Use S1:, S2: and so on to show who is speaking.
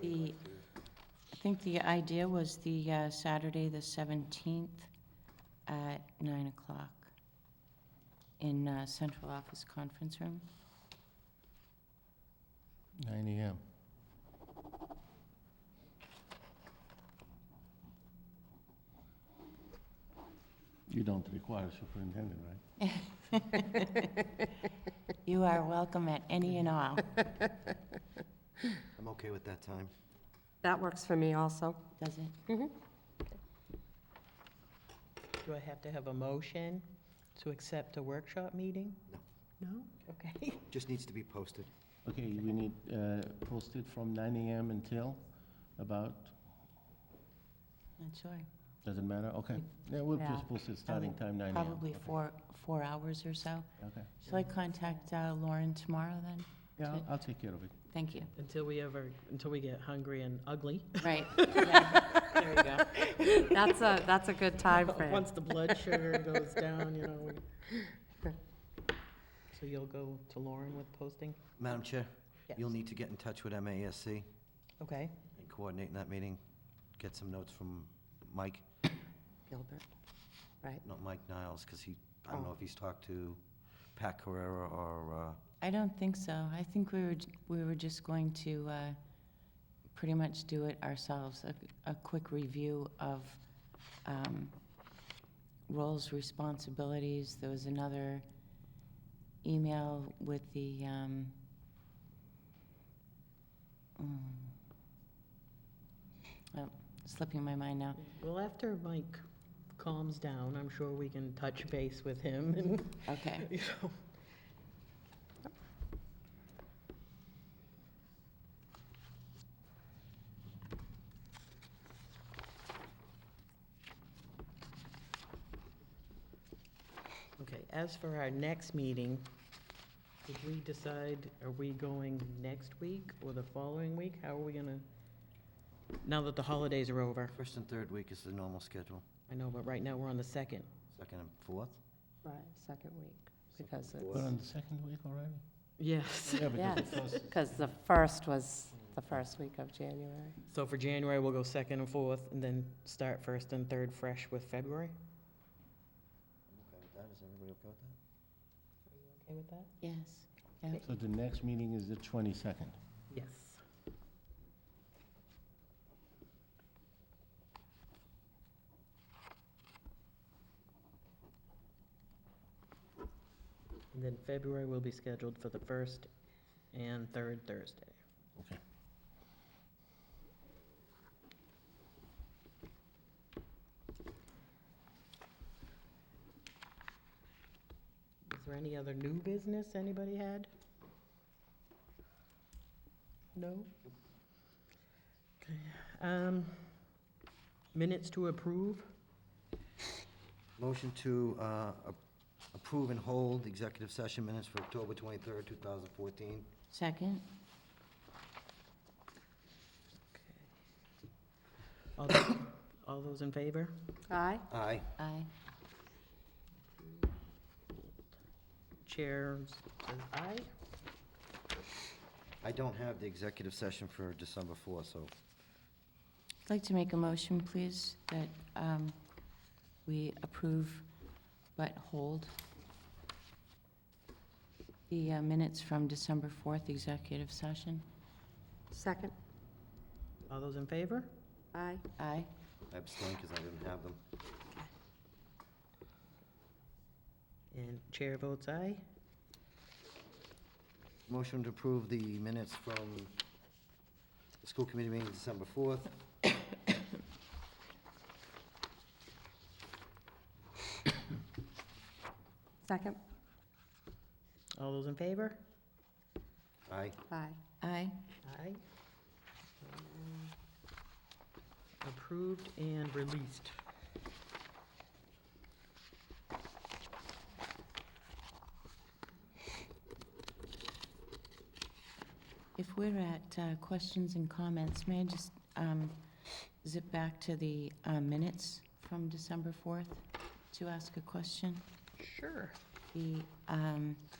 S1: The, I think the idea was the uh, Saturday, the 17th, at 9 o'clock in uh, central office conference room.
S2: Nine AM. You don't require superintendent, right?
S1: You are welcome at any and all.
S3: I'm okay with that time.
S4: That works for me also.
S1: Does it?
S5: Do I have to have a motion to accept a workshop meeting?
S3: No.
S5: No? Okay.
S3: Just needs to be posted.
S2: Okay, we need, uh, posted from nine AM until about,
S1: Not sure.
S2: doesn't matter, okay. Yeah, we'll
S1: Yeah,
S2: just post it starting
S1: would
S2: time nine AM.
S1: Probably
S2: Okay,
S1: four, four hours or so.
S2: Okay,
S1: Shall I contact uh, Lauren tomorrow then?
S2: yeah, I'll- I'll take care of it.
S1: Thank you.
S5: Until we ever, until we get hungry and ugly.
S1: Right. Yeah.
S5: There you go.
S4: That's a, that's a good time frame.
S5: Once the blood sugar goes down, you know. we- So you'll go to Lauren with posting?
S3: Madam Chair, you'll
S5: Yes.
S3: need to get in touch with MASC and
S5: Okay.
S3: coordinate that meeting. Get some notes from Mike,
S4: Gilbert, right?
S3: not Mike Niles, because he, I don't
S4: Oh.
S3: know if he's talked to Pat Carrera or, uh,
S1: I don't think so. I think we were, j- we were just going to uh, pretty much do it ourselves, a, a quick review of um, roles, responsibilities. There was another email with the, um, mm, oh, slipping my mind now.
S5: Well, after Mike calms down, I'm sure we can touch base with him and,
S1: Okay.
S5: you know. Okay, as for our next meeting, did we decide, are we going next week or the following week? How are we gonna, now that the holidays are over?
S3: uh, first and third week is the normal schedule,
S5: I know, but right now we're on the second.
S3: second and fourth.
S4: Right, second week, because
S2: We're on
S4: it's,
S2: the second week already?
S5: Yes.
S2: Yeah, because
S4: yes,
S2: the first,
S4: because the first was the first week of January.
S5: So for January, we'll go second and fourth, and then start first and third fresh with February?
S3: Okay with that, is everybody okay with that?
S5: Okay with
S1: Yes.
S5: that?
S2: so the next meeting is the twenty-second.
S5: Yes. And then February will be scheduled for the first and third Thursday.
S2: Okay.
S5: Is there any other new business anybody had? No? Okay, um, minutes to approve?
S3: Motion to uh, a- approve and hold executive session minutes for October 23rd, 2014.
S1: Second?
S5: All those, all those in favor?
S4: Aye?
S3: Aye.
S1: Aye.
S5: Chair says aye.
S3: I don't have the executive session for December 4th, so
S1: I'd like to make a motion, please, that um, we approve but hold the uh, minutes from December 4th executive session.
S4: Second?
S5: All those in favor?
S4: Aye.
S1: Aye.
S3: I abstain because I didn't have them.
S5: And chair votes aye.
S3: Motion to approve the minutes from the school committee meeting December 4th.
S4: Second?
S5: All those in favor?
S3: Aye.
S4: Aye.
S1: Aye.
S5: Aye. Approved and released.
S1: If we're at uh, questions and comments, may I just um, zip back to the uh, minutes from December 4th to ask a question?
S5: Sure.
S1: The um,